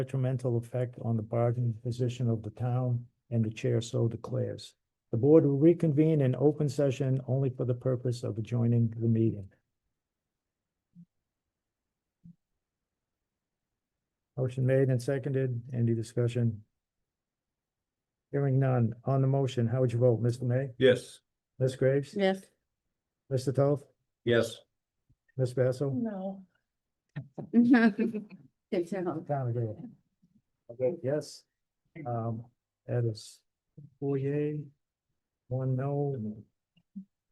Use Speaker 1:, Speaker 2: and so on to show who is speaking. Speaker 1: detrimental effect on the bargaining position of the town, and the chair so declares. The board will reconvene in open session only for the purpose of adjoining the meeting. Motion made and seconded. Any discussion? Hearing none. On the motion, how would you vote, Mr. May?
Speaker 2: Yes.
Speaker 1: Ms. Graves?
Speaker 3: Yes.
Speaker 1: Mr. Toth?
Speaker 2: Yes.
Speaker 1: Ms. Basso?
Speaker 3: No.
Speaker 1: Town agree. Okay, yes. Um, that is four yea, one no,